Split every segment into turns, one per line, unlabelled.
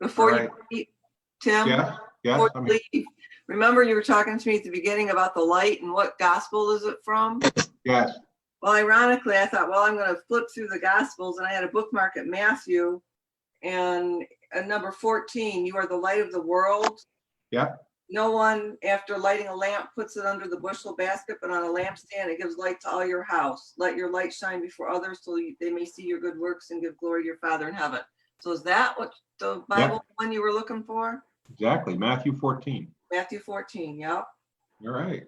before you
Alright.
leave, Tim,
Yeah, yeah,
before
I mean,
you leave, remember you were talking to me at the beginning about the light and what gospel is it from?
yes,
Well, ironically, I thought, well, I'm going to flip through the Gospels, and I had a bookmark at Matthew, and at number 14, you are the light of the world.
Yeah.
No one, after lighting a lamp, puts it under the bushel basket, but on a lampstand, it gives light to all your house. Let your light shine before others, so you- they may see your good works and give glory to your Father in heaven. So is that what the Bible one you were looking for?
exactly. Matthew 14.
Matthew 14, yep.
All right.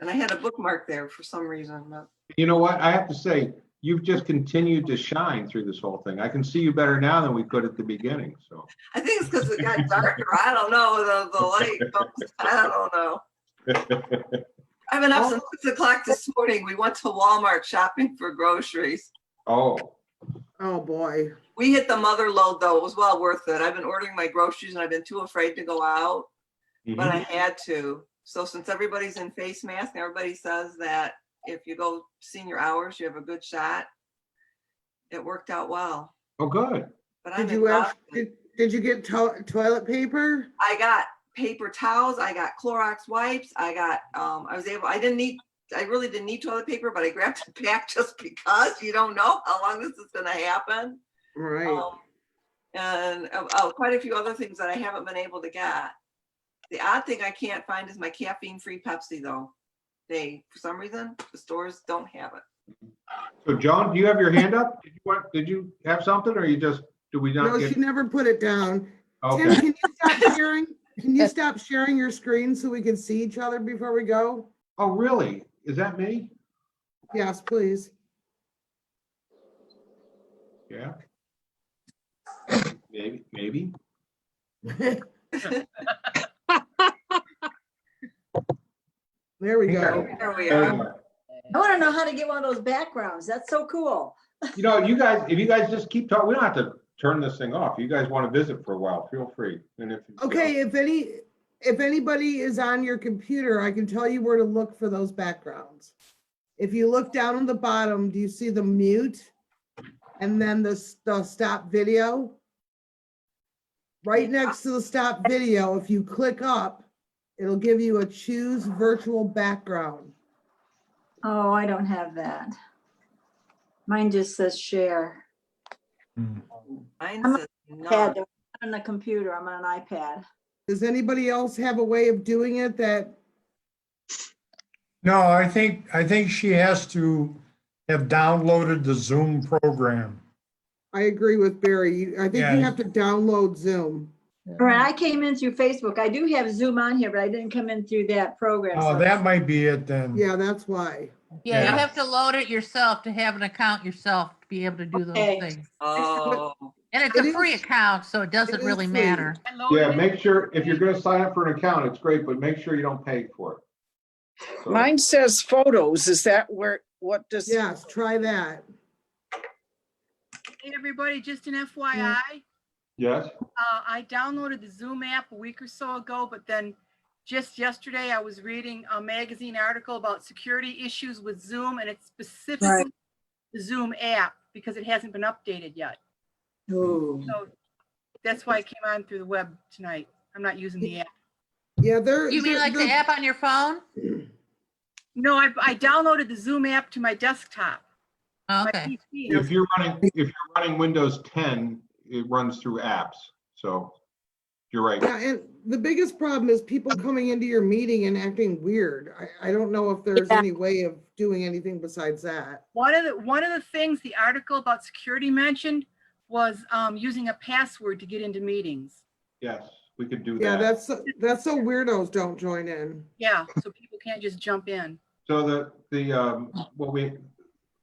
And I had a bookmark there for some reason, but
You know what? I have to say, you've just continued to shine through this whole thing. I can see you better now than we could at the beginning, so.
I think it's because it got darker. I don't know. The, the light, bumps. I don't know. I've been up since six o'clock this morning. We went to Walmart shopping for groceries.
Oh,
Oh, boy.
We hit the mother load though. It was well worth it. I've been ordering my groceries and I've been too afraid to go out, but I
mhm.
had to. So since everybody's in face mask, and everybody says that if you go senior hours, you have a good shot. It worked out well,
oh, good.
but I'm
Did you have,
exhausted.
did, did you get to- toilet paper?
I got paper towels, I got Clorox wipes, I got, um, I was able, I didn't need, I really didn't need toilet paper, but I grabbed a pack just because you don't know how long this is gonna happen.
Right.
Um, And, oh, oh, quite a few other things that I haven't been able to get. The odd thing I can't find is my caffeine-free Pepsi though. They, for some reason, the stores don't have it.
So Joan, do you have your hand up? Did you want, did you have something or you just, did we not
No, she
get?
never put it down. Tim,
Okay,
can you stop sharing? Can you stop sharing your screen so we can see each other before we go?
oh, really? Is that me?
Yes, please.
Yeah. Maybe, maybe.
There we go.
There.
There we
There
are.
we go.
I want to know how to get one of those backgrounds. That's so cool.
You know, you guys, if you guys just keep talking, we don't have to turn this thing off. You guys want to visit for a while, feel free. And if you-
Okay, if any, if anybody is on your computer, I can tell you where to look for those backgrounds. If you look down on the bottom, do you see the mute? And then the, s- the stop video? Right next to the stop video, if you click up, it'll give you a choose virtual background.
Oh, I don't have that. Mine just says share.
Mine
I'm
says none.
Pad, they're not On the computer, I'm on an iPad.
Does anybody else have a way of doing it that,
No, I think, I think she has to have downloaded the Zoom program.
I agree with Barry, you- I think you
Yeah.
have to download Zoom.
All right, I came in through Facebook. I do have Zoom on here, but I didn't come in through that program.
Oh,
so-
that might be it then.
Yeah, that's why.
Yeah,
Yeah.
you have to load it yourself to have an account yourself to be able to do those
Okay.
things.
Oh,
And it's
It
a
is-
free account, so it doesn't
is
really
free.
matter.
Yeah,
Oh,
make sure, if you're gonna sign up for an account, it's great, but make sure you don't pay for it. So-
Mine says photos. Is that where, what does?
Yes, try that.
Hey, everybody, just an FYI,
Yes,
uh, I downloaded the Zoom app a week or so ago, but then just yesterday I was reading a magazine article about security issues with Zoom and it's specifically the Zoom app because it hasn't been updated yet.
Ooh.
So that's why I came on through the web tonight. I'm not using the app.
Yeah, there.
You mean
there-
like the
there-
app on your phone?
No, I, I downloaded the Zoom app to my desktop. my
Okay,
PC, and I
if you're running, if you're running Windows ten, it runs through apps, so you're right.
Yeah, and the biggest problem is people coming into your meeting and acting weird. I, I don't know if there's
Yeah.
any way of doing anything besides that.
One of the, one of the things the article about security mentioned was um, using a password to get into meetings.
Yes, we could do
Yeah,
that.
that's, that's so weirdos don't join in.
Yeah, so people can't just jump in.
So the, the, um, what we,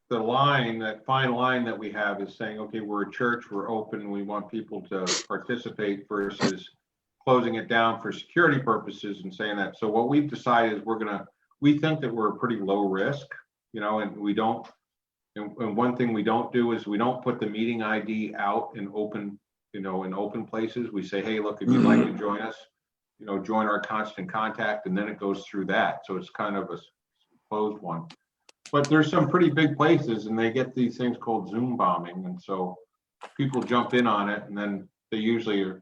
the line, that fine line that we have is saying, okay, we're a church, we're open, we want people to participate versus closing it down for security purposes and saying that. So what we've decided is we're gonna, we think that we're pretty low risk, you know, and we don't. And, and one thing we don't do is we don't put the meeting ID out in open, you know, in open places. We say, hey, look, if you'd like to join us, you know, join our constant contact, and then it goes through that. So it's kind of a s- closed one. But there's some pretty big places and they get these things called Zoom bombing. And so people jump in on it and then they usually are